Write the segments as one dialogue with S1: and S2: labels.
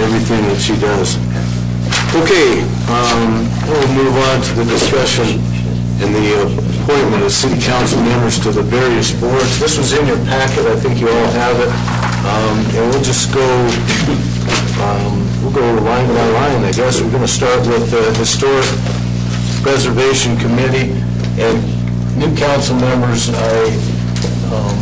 S1: everything that she does. Okay, um, we'll move on to the discussion and the appointment of city council members to the various boards. This was in your packet, I think you all have it, Um, and we'll just go, um, we'll go line by line, I guess. We're going to start with the Historic Preservation Committee, and new council members, I um,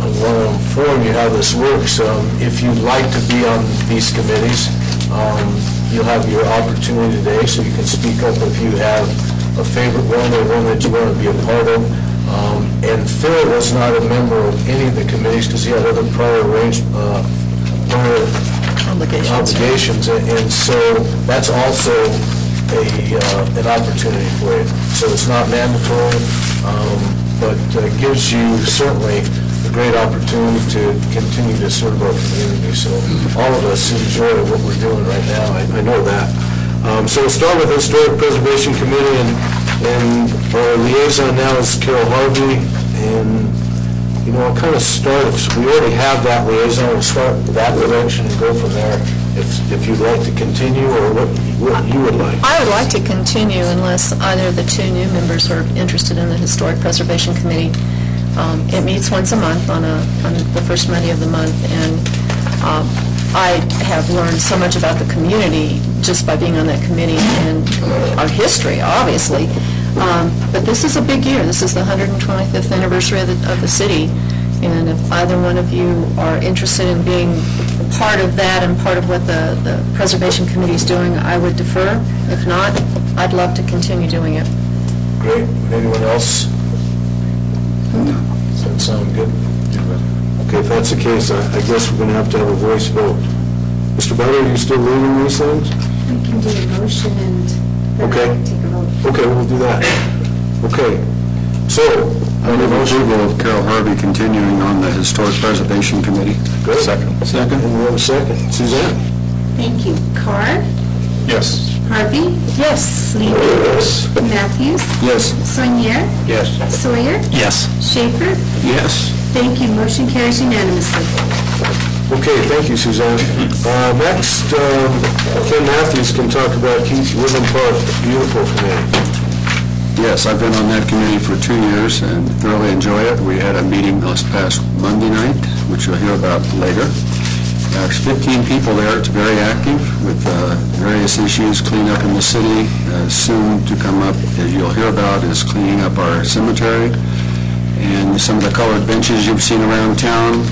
S1: I want to inform you how this works. Um, If you'd like to be on these committees, um, you'll have your opportunity today, so you can speak up if you have a favorite one or one that you want to be a part of. Um, And Phil was not a member of any of the committees because he had other prior arranged, uh, prior obligations, and and so that's also a, uh, an opportunity for you. So it's not mandatory, um, but uh, gives you certainly a great opportunity to continue to serve our community. So all of us enjoy what we're doing right now, I- I know that. Um, So we'll start with Historic Preservation Committee, and and our liaison now is Carol Harvey, and you know, it kind of starts, we already have that liaison, we'll start with that direction and go from there, if, if you'd like to continue, or what, what you would like.
S2: I would like to continue unless either of the two new members are interested in the Historic Preservation Committee. Um, It meets once a month on a, on the first Monday of the month, and um, I have learned so much about the community just by being on that committee and our history, obviously. Um, But this is a big year. This is the 125th anniversary of the, of the city, and if either one of you are interested in being part of that and part of what the, the Preservation Committee is doing, I would defer. If not, I'd love to continue doing it.
S1: Great, would anyone else? Does that sound good? Okay, if that's the case, I, I guess we're gonna have to have a voice vote. Mr. Butler, are you still leading these things?
S3: We can do a motion and then
S1: Okay.
S3: I can take a vote.
S1: Okay, we'll do that. Okay, so,
S4: I move approval of Carol Harvey continuing on the Historic Preservation Committee.
S1: Great. Second. And we have a second. Suzanne?
S3: Thank you. Carr,
S4: Yes.
S3: Harvey,
S2: Yes.
S3: Levy,
S1: Yes.
S3: Matthews,
S4: Yes.
S3: Soinier,
S1: Yes.
S3: Sawyer,
S4: Yes.
S3: Schaefer.
S4: Yes.
S3: Thank you. Motion carries unanimously.
S1: Okay, thank you, Suzanne. Uh, Next, um, Ken Matthews can talk about Keith Woodland Park Beautiful Committee.
S4: Yes, I've been on that committee for two years and thoroughly enjoy it. We had a meeting last past Monday night, which you'll hear about later. There's 15 people there, it's very active with uh, various issues, cleanup in the city, Uh, soon to come up, as you'll hear about, is cleaning up our cemetery, and some of the colored benches you've seen around town,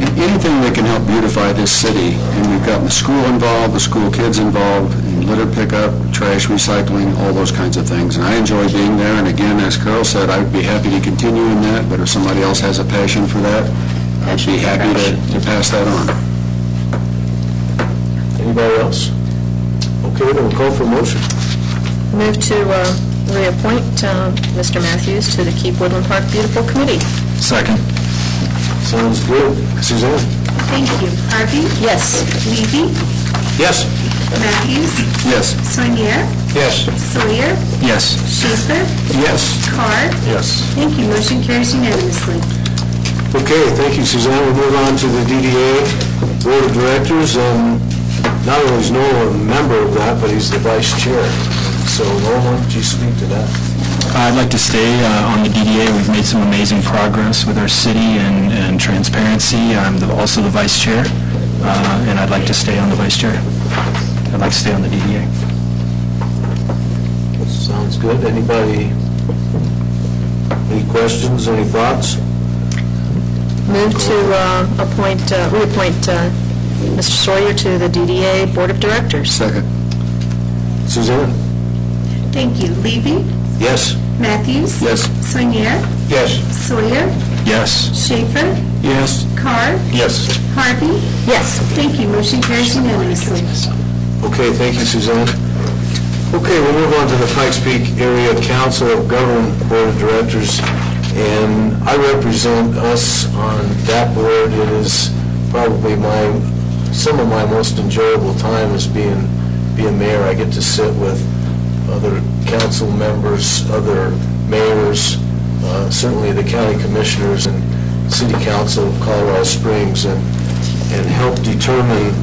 S4: And anything that can help beautify this city. And we've gotten the school involved, the school kids involved, in litter pickup, trash recycling, all those kinds of things. And I enjoy being there, and again, as Carol said, I'd be happy to continue in that, but if somebody else has a passion for that, I'd be happy to to pass that on.
S1: Anybody else? Okay, then we'll call for a motion.
S2: Move to uh, reappoint uh, Mr. Matthews to the Keep Woodland Park Beautiful Committee.
S4: Second.
S1: Sounds good. Suzanne?
S3: Thank you. Harvey,
S2: Yes.
S3: Levy,
S1: Yes.
S3: Matthews,
S4: Yes.
S3: Soinier,
S1: Yes.
S3: Sawyer,
S4: Yes.
S3: Schaefer,
S1: Yes.
S3: Carr.
S1: Yes.
S3: Thank you. Motion carries unanimously.
S1: Okay, thank you, Suzanne. We'll move on to the DDA Board of Directors, and not only is Noel a member of that, but he's the vice chair. So Noel, why don't you speak to that?
S5: I'd like to stay uh, on the DDA. We've made some amazing progress with our city and and transparency. I'm the- also the vice chair, uh, and I'd like to stay on the vice chair. I'd like to stay on the DDA.
S1: Sounds good. Anybody, any questions, any thoughts?
S2: Move to uh, appoint, uh, reappoint uh, Mr. Sawyer to the DDA Board of Directors.
S4: Second.
S1: Suzanne?
S3: Thank you. Levy,
S1: Yes.
S3: Matthews,
S4: Yes.
S3: Soinier,
S1: Yes.
S3: Sawyer,
S5: Yes.
S3: Schaefer,
S1: Yes.
S3: Carr,
S1: Yes.
S3: Harvey,
S2: Yes.
S3: Thank you, motion carries unanimously.
S1: Okay, thank you, Suzanne. Okay, we'll move on to the Pikes Peak Area Council of Government Board of Directors, and I represent us on that board. It is probably my, some of my most enjoyable time is being, being mayor. I get to sit with other council members, other mayors, uh, certainly the county commissioners and city council of Colorado Springs, and, and help determine